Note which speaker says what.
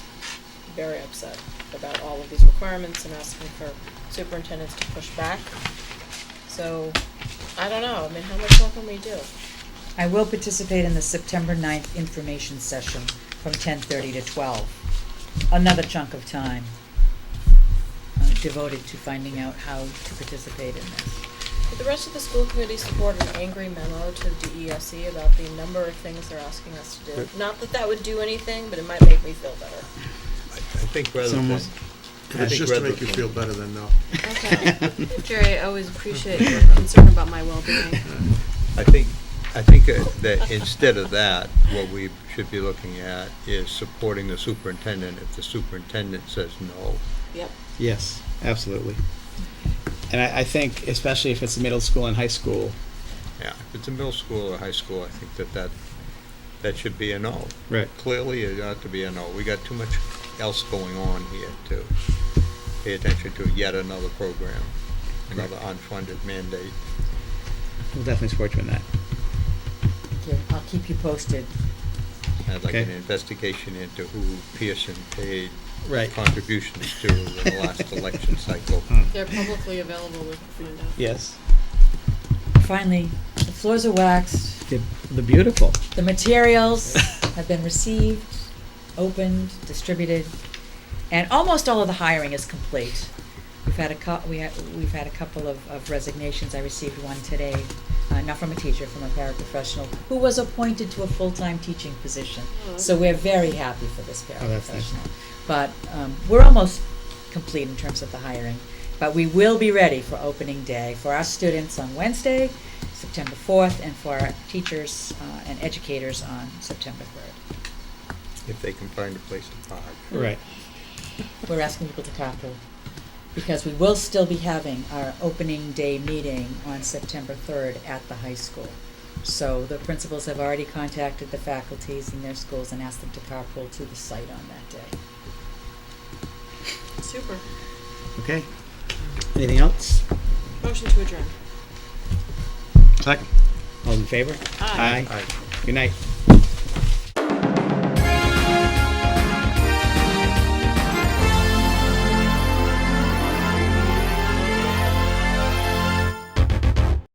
Speaker 1: very upset about all of these requirements and asking for superintendents to push back. So, I don't know, I mean, how much more can we do?
Speaker 2: I will participate in the September 9th information session from ten thirty to twelve. Another chunk of time uh, devoted to finding out how to participate in this.
Speaker 1: Would the rest of the school committee support an angry memo to DESE E about the number of things they're asking us to do?
Speaker 3: Right.
Speaker 1: Not that that would do anything, but it might make me feel better.
Speaker 3: I think rather than,
Speaker 4: Someone-
Speaker 3: I
Speaker 4: It's
Speaker 3: think
Speaker 4: just to
Speaker 3: rather
Speaker 4: make you
Speaker 3: than-
Speaker 4: feel better than no.
Speaker 5: Okay. Jerry, I always appreciate your concern about my well-being.
Speaker 3: I think, I think uh, that instead of that, what we should be looking at is supporting the superintendent if the superintendent says no.
Speaker 1: Yep.
Speaker 4: Yes, absolutely.
Speaker 6: And I, I think, especially if it's middle school and high school,
Speaker 3: Yeah, if it's a middle school or high school, I think that that, that should be a no.
Speaker 4: Right.
Speaker 3: Clearly, it ought to be a no. We got too much else going on here to pay attention to yet another program, another unfunded mandate.
Speaker 6: we'll definitely support you in that.
Speaker 2: Okay, I'll keep you posted.
Speaker 3: I'd like an
Speaker 6: Okay.
Speaker 3: investigation into who Pearson paid
Speaker 6: Right.
Speaker 3: contributions to in the last election cycle.
Speaker 5: They're publicly available, we can find out.
Speaker 6: Hmm. Yes.
Speaker 2: Finally, the floors are waxed,
Speaker 6: The, the beautiful.
Speaker 2: the materials have been received, opened, distributed, and almost all of the hiring is complete. We've had a cou- we had, we've had a couple of, of resignations. I received one today, uh, not from a teacher, from a paraprofessional who was appointed to a full-time teaching position.
Speaker 5: Oh,
Speaker 2: So
Speaker 5: okay.
Speaker 2: we're very happy for this
Speaker 6: Oh, that's nice.
Speaker 2: paraprofessional. But um, we're almost complete in terms of the hiring. But we will be ready for opening day for our students on Wednesday, September 4th, and for our teachers uh, and educators on September 3rd.
Speaker 3: if they can find a place to park.
Speaker 6: Right.
Speaker 2: We're asking people to carpool because we will still be having our opening day meeting on September 3rd at the high school. So the principals have already contacted the faculties in their schools and asked them to carpool to the site on that day.
Speaker 5: Super.
Speaker 6: Okay. Anything else?
Speaker 5: Motion to adjourn.
Speaker 6: Second. All in favor?
Speaker 5: Aye.
Speaker 6: Good night.